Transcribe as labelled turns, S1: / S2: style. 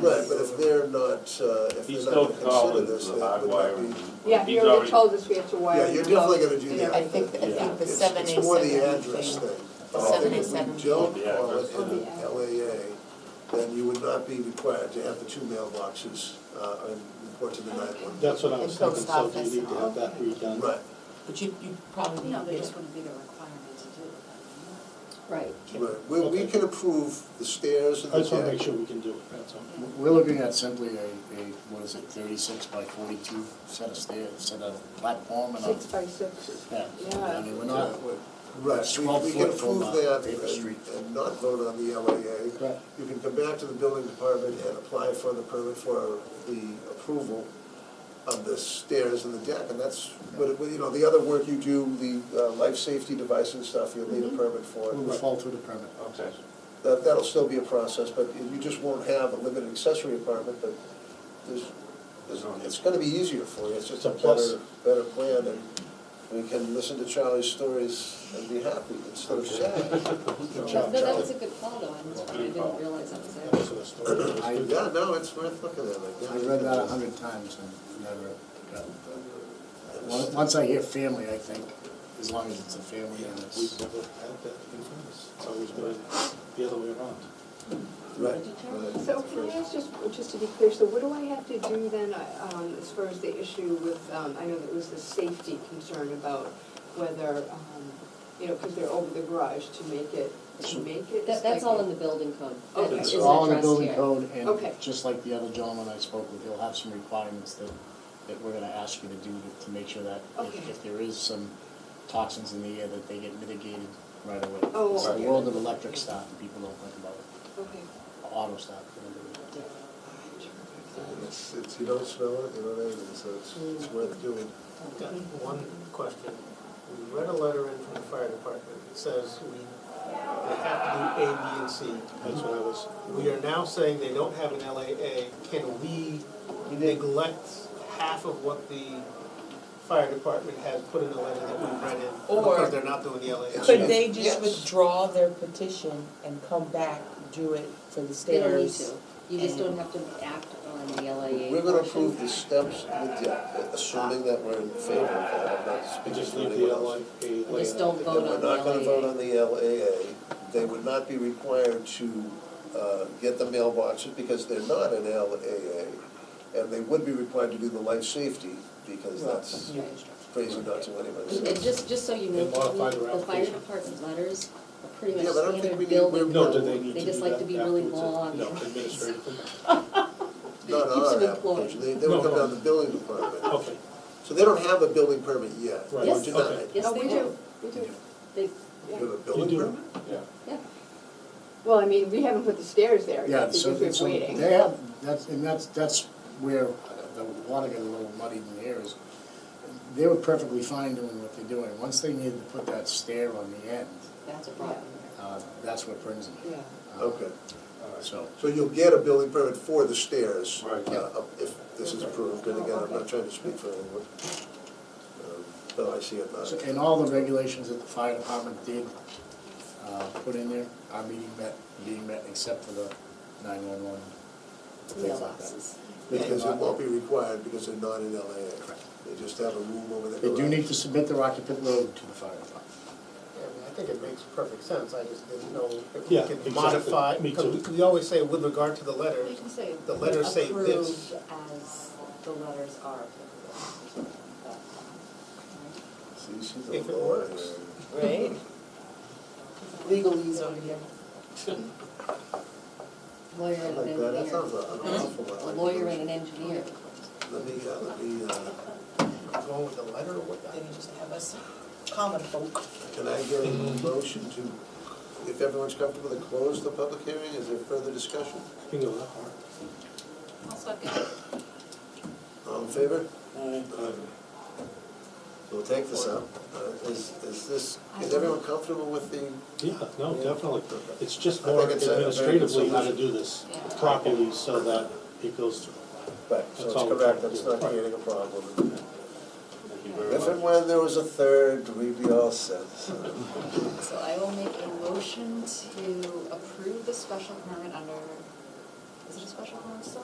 S1: Right, but if they're not, uh, if
S2: He's
S1: they're
S2: still
S1: not considering
S2: calling
S1: this,
S2: the
S1: that
S2: hot
S1: would
S2: wire.
S1: not be.
S3: Yeah, he
S2: He's
S3: already
S2: already,
S3: told us we have to wire.
S1: Yeah, you're
S3: them out
S1: definitely gonna do
S3: and
S1: that.
S4: I think, I think the
S1: It's-
S4: seven
S1: It's
S4: eight
S1: more the
S4: seven
S1: address
S4: thing.
S1: thing.
S4: The
S1: I think
S4: 787.
S1: If we don't
S2: Yeah,
S1: call it
S2: address,
S1: an
S3: yeah.
S1: LAA, then you would not be required to have the two mailboxes, uh, and report to the nine-one.
S5: That's what I was
S4: And
S5: thinking,
S4: post
S5: so do
S4: office
S5: you need to
S4: and
S5: have that redone?
S1: Right,
S4: But you, you probably
S6: No,
S4: need
S6: they
S4: to,
S6: just wouldn't be the requirement to do it.
S3: Right.
S1: right. We, we
S5: Okay.
S1: can approve the stairs and
S5: I
S1: the
S5: just wanna
S1: deck.
S5: make sure we can do it, that's all.
S7: We're looking at simply a, a, what is it, thirty-six by forty-two set of stairs, set of platform and a,
S3: Six by sixes.
S7: yeah. I mean, we're not, we're-
S1: Right, we,
S7: Twelve
S1: we can
S7: foot from,
S1: approve
S7: uh,
S1: that
S7: Davis Street.
S1: and, and not vote on the LAA.
S7: Right.
S1: You can come back to the building department and apply for the permit for the approval of the stairs and the deck, and that's, but, you know, the other work you do, the uh, life safety device and stuff, you'll
S7: Mm-hmm.
S1: need a permit for
S7: we would
S1: it.
S7: fall through the permit.
S2: okay.
S1: That, that'll still be a process, but you just won't have a limited accessory apartment, but there's, there's, it's gonna be easier for you, it's just a
S5: It's a plus.
S1: better, better plan, and we can listen to Charlie's stories and be happy instead of sad.
S5: Good
S6: No,
S5: job,
S6: that
S5: Charlie.
S6: was a good call though, I
S2: Good call.
S6: didn't realize that was
S5: That
S6: there.
S5: was the story. That was
S7: I-
S5: good.
S1: Yeah, no, it's worth looking at, like, yeah.
S7: I read that a hundred times and never got it done. Once- Once I hear family, I think, as long as it's a family and
S5: We've
S7: it's,
S5: never had that in front of us, it's always been the other way around.
S1: Right. right.
S3: So can I ask just, just to be clear, so what do I have to do then, uh, um, as far as the issue with, um, I know there was the safety concern about whether, um, you know, because they're over the garage to make it, to make it.
S6: That, that's all in the building code. That
S3: Okay.
S7: it's
S6: isn't
S7: all in the
S6: addressed
S7: building
S6: here.
S7: code
S3: Okay.
S7: and just like the other gentleman I spoke with, he'll have some requirements that, that we're gonna ask you to do to, to make sure that
S3: Okay.
S7: if, if there is some toxins in the air, that they get mitigated right away.
S3: Oh,
S7: It's the
S3: okay.
S7: world of electric stuff and people don't think about it.
S3: Okay.
S7: auto stop. whatever it is.
S1: It's, it's, you don't smell it, you know what I mean, so it's, it's worth doing.
S8: I've got one question. We read a letter in from the fire department that says we, they have to do A, B, and C.
S5: That's what I was,
S8: We are now saying they don't have an LAA. Can we neglect half of what the fire department has put in the letter that we read in?
S4: Or-
S8: Because they're not doing the LAA.
S1: Could
S4: could they just
S1: Yes.
S4: withdraw their petition and come back, do it for the
S6: They don't need
S4: stairs?
S6: to, you just don't have to act on the LAA.
S1: We're gonna
S6: portion.
S1: approve the steps with the, assuming that we're in favor of that, I'm not
S5: I
S1: speaking
S5: just
S1: to
S5: leave the
S1: anyone else.
S5: LA.
S6: I just don't vote on
S1: And we're not gonna vote
S6: the
S1: on the LAA, they would not be required to, uh, get the mailboxes because they're not an LAA. And they would be required to do the life safety, because that's
S6: LAA.
S1: crazy not to anybody.
S6: And and just, just so you know,
S5: And modify their
S6: the fire
S5: application.
S6: department letters are pretty
S1: Yeah,
S6: much
S1: but I don't think we need-
S6: standard building
S5: No, do
S6: code.
S5: they need to do that afterwards? uh,
S6: just like to be really long.
S5: No, administratively.
S1: Not
S6: Keeps
S1: our
S6: them employed.
S1: application, they, they would
S5: No,
S1: come
S5: no.
S1: down to the building department.
S5: Okay,
S1: So they don't have a building permit yet,
S5: Right,
S1: They were
S6: Yes.
S1: denied.
S6: Yes,
S3: Oh,
S6: they
S3: we
S6: do,
S3: We do,
S6: they,
S1: You
S3: yeah.
S1: have a
S5: you
S1: building
S5: do,
S1: permit?
S5: yeah.
S6: yeah.
S3: Well, I mean, we haven't put the stairs there
S7: Yeah,
S3: yet
S7: so,
S3: because we're
S7: so
S3: waiting.
S7: they have, that's, and that's, that's where the water got a little muddied in the air is, they were perfectly fine doing what they're doing. Once they needed to put that stair on the end,
S6: That's a problem there.
S7: uh, that's what brings them.
S3: Yeah.
S7: Uh,
S1: Okay,
S7: So,
S1: so you'll get a building permit for the stairs.
S2: Right.
S1: uh, If this is approved, and again, I'm not trying to speak for anyone. Um, But I see it not.
S7: so- and all the regulations that the fire department did, uh, put in there, our meeting met, being met except for the nine-one-one, things like that.
S6: Mailboxes.
S1: Because it won't be required because they're not in LAA. They just have a room over there.
S7: They do need to submit their occupant load to the fire department.
S8: Yeah, I mean, I think it makes perfect sense, I just didn't know if
S5: Yeah,
S8: we could
S5: exactly.
S8: modify,
S5: Me
S8: because
S5: too.
S8: we always say with regard to the letter,
S6: You can say.
S8: The letters say this.
S6: Approved as the letters are applicable.
S1: See, she's
S8: If
S1: a lawyer.
S8: it works.
S4: Right? Legalese over here.
S6: Lawyer
S1: I
S6: and an
S1: like that, that
S6: engineer.
S1: sounds an awful lot.
S6: Mm-hmm. A
S1: like-
S6: lawyer and an engineer.
S1: Let me, uh, let me, uh,
S8: going with the letter or what?
S4: Then you just have us common folk.
S1: can I get a motion to, if everyone's comfortable, to close the public hearing? Is there further discussion?
S5: You can go that far.
S1: All in favor? We'll take this up. Uh, Is, is this, is everyone comfortable with the,
S5: Yeah, no, definitely. It's just
S1: I think
S5: more
S1: it's a very good
S5: administratively how to
S1: solution.
S5: do this properly so that it goes through.
S1: right, so
S5: That's
S1: it's
S5: all we're
S1: correct,
S5: trying to
S1: that's
S5: do.
S1: not creating a problem.
S2: Thank you very
S1: If and
S2: much.
S1: when there was a third, we'd be all set.
S6: So I will make a motion to approve the special permit under Is it a special permit still?